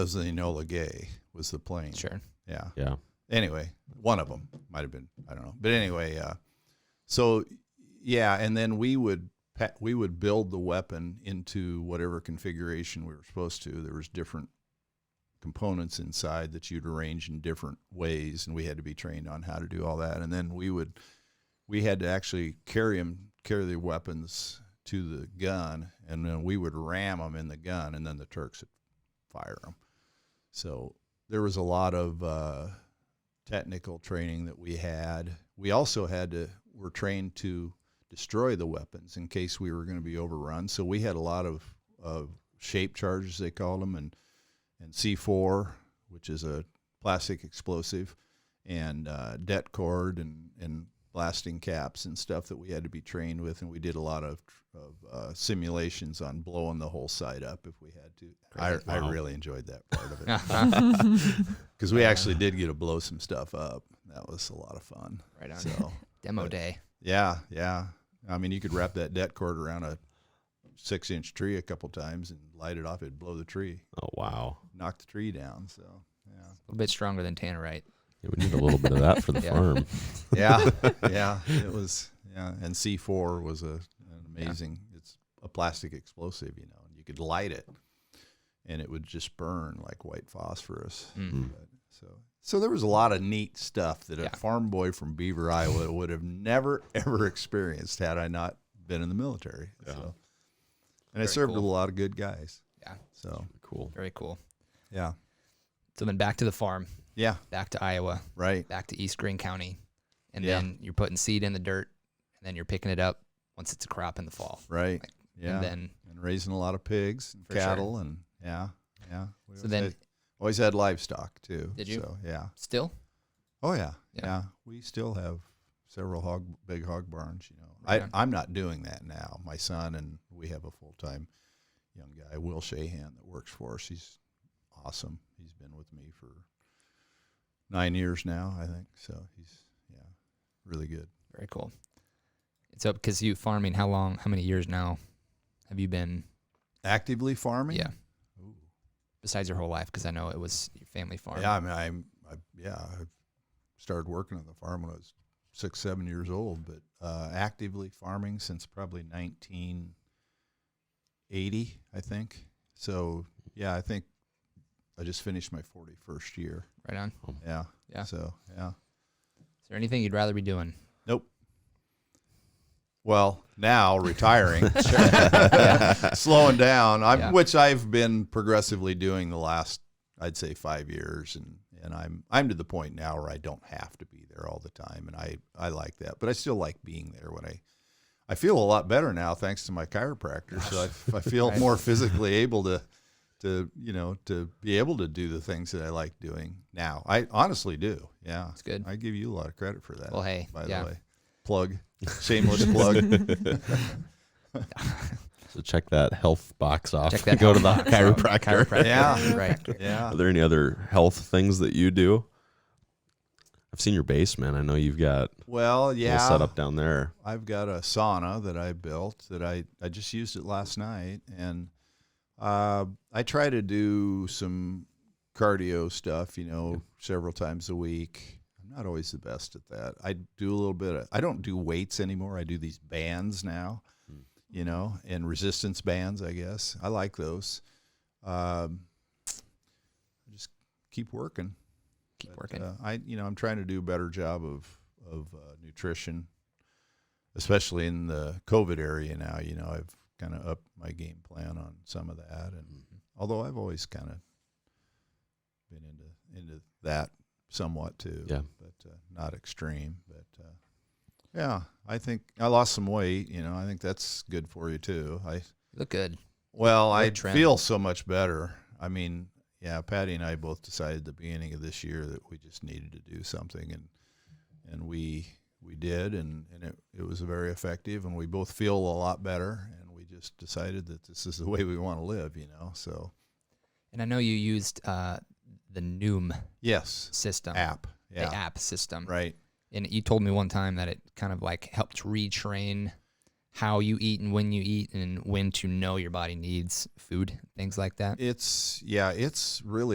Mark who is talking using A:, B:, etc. A: was Enola Gay was the plane.
B: Sure.
A: Yeah.
C: Yeah.
A: Anyway, one of them might have been I don't know, but anyway, uh, so yeah, and then we would pa- we would build the weapon into whatever configuration we were supposed to. There was different components inside that you'd arrange in different ways, and we had to be trained on how to do all that. And then we would we had to actually carry them carry the weapons to the gun, and then we would ram them in the gun, and then the Turks would fire them. So there was a lot of uh, technical training that we had. We also had to were trained to destroy the weapons in case we were going to be overrun. So we had a lot of, of shape charges they called them and and C4, which is a plastic explosive, and uh, det cord and and blasting caps and stuff that we had to be trained with, and we did a lot of, of uh, simulations on blowing the whole site up if we had to. I,
B: Great.
A: I
C: Wow.
A: really enjoyed that part of it because we actually did get to blow some stuff up. That was a lot of fun.
B: Right on.
A: So
B: Demo day.
A: yeah, yeah. I mean, you could wrap that debt cord around a six-inch tree a couple times and light it off. It'd blow the tree,
C: Oh wow.
A: knock the tree down. So
B: A little bit stronger than Tannerite.
C: Yeah, we need a little bit of that for the
B: Yeah.
C: farm.
A: yeah, yeah. It was yeah. And C four was a an amazing. It's a plastic explosive, you know, and you could light it, and it would just burn like white phosphorus.
B: Mm.
A: But, so so there was a lot of neat stuff that
B: Yeah.
A: a farm boy from Beaver, Iowa, would have never ever experienced had I not been in the military. So, and I
B: Very
A: served with
B: cool.
A: a lot of good guys.
B: Yeah.
A: So
C: Cool.
B: Very cool.
A: yeah,
B: So then back to the farm,
A: yeah,
B: back to Iowa,
A: right,
B: back to East Green County, and
A: Yeah.
B: then you're putting seed in the dirt, and then you're picking it up once it's a crop in the fall.
A: right. Yeah,
B: And
A: and,
B: then
A: raising a lot of pigs, and
B: For sure.
A: cattle, and yeah, yeah. We
B: so
A: always
B: then
A: had- Always had livestock too.
B: Did you?
A: So, yeah.
B: still
A: Oh yeah,
B: Yeah.
A: yeah. We still have several hog, big hog barns. You know,
B: Right on.
A: I, I'm not doing that now. My son and we have a full time young guy, Will Shahan, that works for us. He's awesome. He's been with me for nine years now, I think. So he's yeah, really good.
B: very cool. It's up because you farming. How long? How many years now have you been?
A: Actively farming.
B: Yeah.
A: Ooh.
B: Besides your whole life, because I know it was your family farm.
A: Yeah, I mean, I'm, I, yeah, I started working on the farm when I was six, seven years old, but uh, actively farming since probably 1980, I think. So, yeah, I think I just finished my 41st year.
B: Right on.
A: Yeah.
B: Yeah.
A: So, yeah.
B: Is there anything you'd rather be doing?
A: Well, now retiring, slowing down, I'm,
B: Yeah.
A: which I've been progressively doing the last, I'd say, five years, and and I'm I'm to the point now where I don't have to be there all the time, and I I like that, but I still like being there when I. I feel a lot better now thanks to my chiropractor, so I, I feel
B: Right.
A: more physically able to, to you know, to be able to do the things that I like doing now. I honestly do. Yeah,
B: It's good.
A: I give you a lot of credit for that.
B: Well, hey,
A: by
B: yeah.
A: the way, plug, shameless plug.
C: So check that health box off.
B: Check that
C: Go to the
B: health box out.
C: chiropractor.
B: Chiropractor.
A: Yeah.
B: Right.
A: Yeah.
C: Are there any other health things that you do? I've seen your basement. I know you've got
A: Well,
C: a little
A: yeah.
C: setup down there.
A: I've got a sauna that I built that I, I just used it last night. And uh, I try to do some cardio stuff, you know, several times a week. I'm not always the best at that. I do a little bit of, I don't do weights anymore. I do these bands now, you know, and resistance bands, I guess. I like those. Um, just keep working.
B: Keep
A: But,
B: working.
A: Uh, I, you know, I'm trying to do a better job of of uh, nutrition, especially in the COVID area now. You know, I've kind of upped my game plan on some of that, and although I've always kind of been into into that somewhat too,
C: Yeah.
A: but uh, not extreme. But uh, yeah, I think I lost some weight. You know, I think that's good for you too. I
B: You look good.
A: well, I
B: Good trend.
A: feel so much better. I mean, yeah, Patty and I both decided at the beginning of this year that we just needed to do something, and and we we did, and and it it was very effective, and we both feel a lot better, and we just decided that this is the way we want to live, you know. So
B: And I know you used uh, the Noom
A: yes,
B: system,
A: app,
B: the
A: yeah,
B: app system.
A: right,
B: And you told me one time that it kind of like helped retrain how you eat and when you eat and when to know your body needs food, things like that.
A: It's yeah, it's really